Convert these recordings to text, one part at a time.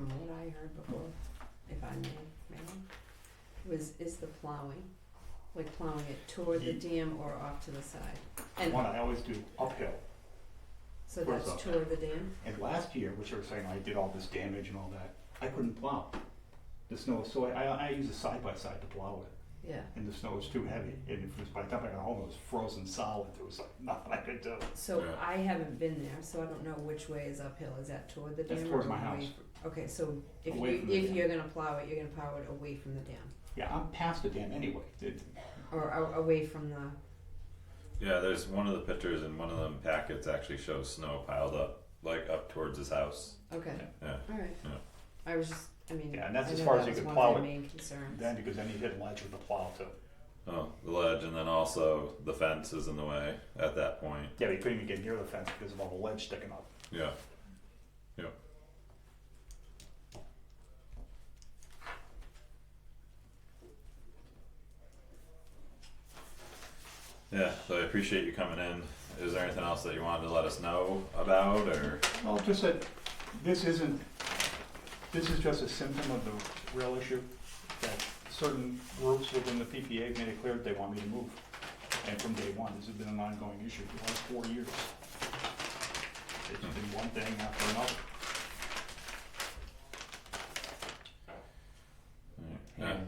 heard before, if I may, ma'am, was, is the plowing. Like plowing it toward the dam or off to the side. And One, I always do uphill. so Towards that's up. toward the dam? And last year, which I was saying, I did all this damage and all that, I couldn't plow. The snow was so, I, I use a side by side to plow it, Yeah. and the snow was too heavy. And it was, by the time I got home, it was frozen solid. There was like nothing I could do. So Yeah. I haven't been there, so I don't know which way is uphill. Is that toward the dam? That's or towards my away house. fr- Okay, so if Away you, from the if dam. you're gonna plow it, you're gonna plow it away from the dam Yeah, I'm past the dam anyway. It- or a- away from the, Yeah, there's one of the pictures in one of them packets actually shows snow piled up, like up towards his house. okay, Yeah. alright. Yeah. I was just, I mean, Yeah, I and know that's that as was far as you could one plow of it. the main concerns. Then because then you hit a ledge with a plow too. Oh, the ledge, and then also the fence is in the way at that point. Yeah, but you couldn't even get near the fence because of all the ledge sticking up. Yeah. Yeah. Yeah, so I appreciate you coming in. Is there anything else that you wanted to let us know about or? Well, just that this isn't, this is just a symptom of the real issue that certain groups within the PPA made it clear that they want me to move. And from day one, this has been an ongoing issue for the last four years. It's been one thing after another. Yeah, And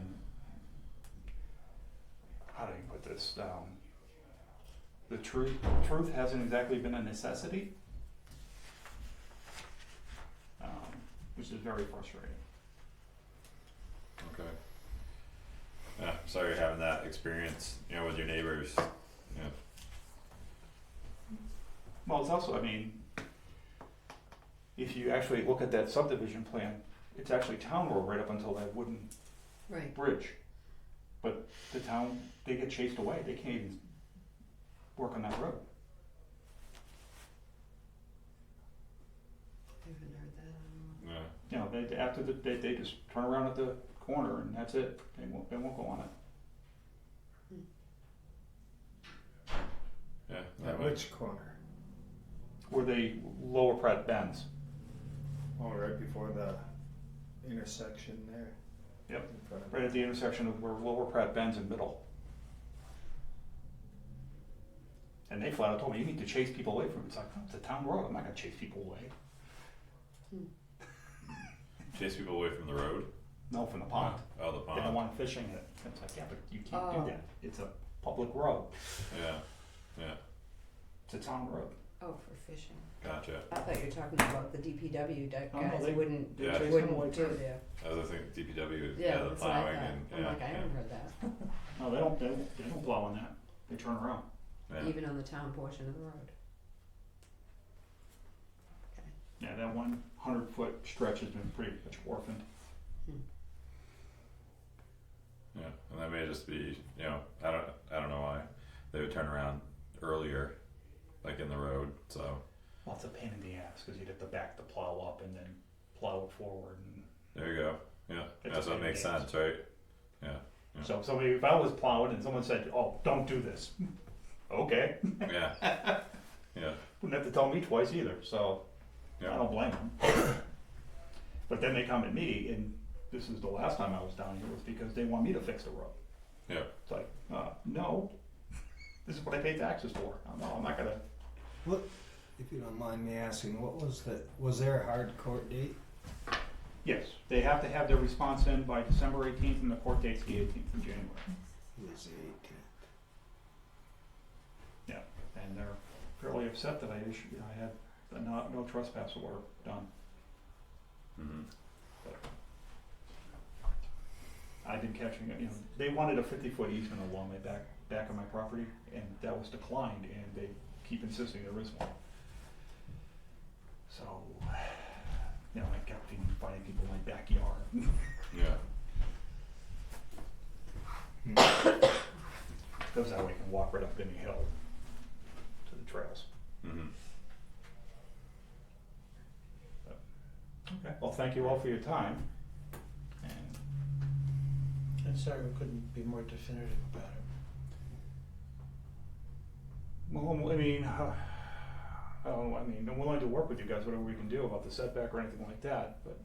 how do you put this down? The truth, truth hasn't exactly been a necessity, um, which is very frustrating. okay. Yeah, sorry you're having that experience, you know, with your neighbors. Yeah, Well, it's also, I mean, if you actually look at that subdivision plan, it's actually town road right up until that wooden Right, bridge. But the town, they get chased away, they can't even work on that road. I haven't heard that, I don't know. yeah. You know, they, after the, they, they just turn around at the corner and that's it, they won't, they won't go on it. Yeah, At that Um, way. which corner? Where they lower Pratt bends, Oh, right before the intersection there. Yep. In front of- right at the intersection of where lower Pratt bends and middle. And they flat out told me, you need to chase people away from it, it's like, "No, it's a town road, I'm not gonna chase people away, Chase people away from the road? no, from the pond. Oh, the They don't pond, want fishing it. It's like, yeah, but you can't Oh. do that. It's a public road. yeah, yeah, It's a town road. Oh, for fishing. gotcha. I thought you were talking about the DPW di- Oh, no, guys they- wouldn't, Yeah. Chase them away wouldn't do too. their, As I think DPW, yeah, yeah, the that's what I plowing thought. and, yeah, I'm like, I yeah. haven't heard that, No, they don't. They don't, they don't blow on that. They turn around. Yeah. even on the town portion of the road. Okay. Yeah, that one hundred foot stretch has been pretty much orphaned. Yeah, and that may just be, you know, I don't, I don't know why they would turn around earlier, like in the road. So Well, it's a pain in the ass because you'd have to back the plow up and then plow it forward. And there you go. Yeah, It's that's a what pain in makes the ass. sense, right? Yeah. so, if somebody, if I was plowing and someone said, "Oh, don't do this," okay, Yeah, yeah, wouldn't have to tell me twice either. So I yeah. don't blame them. but then they come at me, and this is the last time I was down here was because they want me to fix the road. Yeah. It's like, uh, no, this is what I pay taxes for. I'm, no, I'm not gonna. If you don't mind me asking, what was the, was there a hard court date? Yes, they have to have their response in by December 18th, and the court date's the 18th of January. It was the eighteenth. And they're fairly upset that I issued, I had the no, no trespass order done. hmm I've been catching it. You know, they wanted a 50-foot easement along my back back of my property, and that was declined, and they keep insisting there is one. So, you know, I kept inviting people in my backyard. Yeah, Goes that way, you can walk right up any hill to the trails. hmm Okay. Well, thank you all for your time. And I'm sorry we couldn't be more definitive about it. Well, I mean, uh, oh, I don't, I mean, I'm willing to work with you guys, whatever we can do about the setback or anything like that, but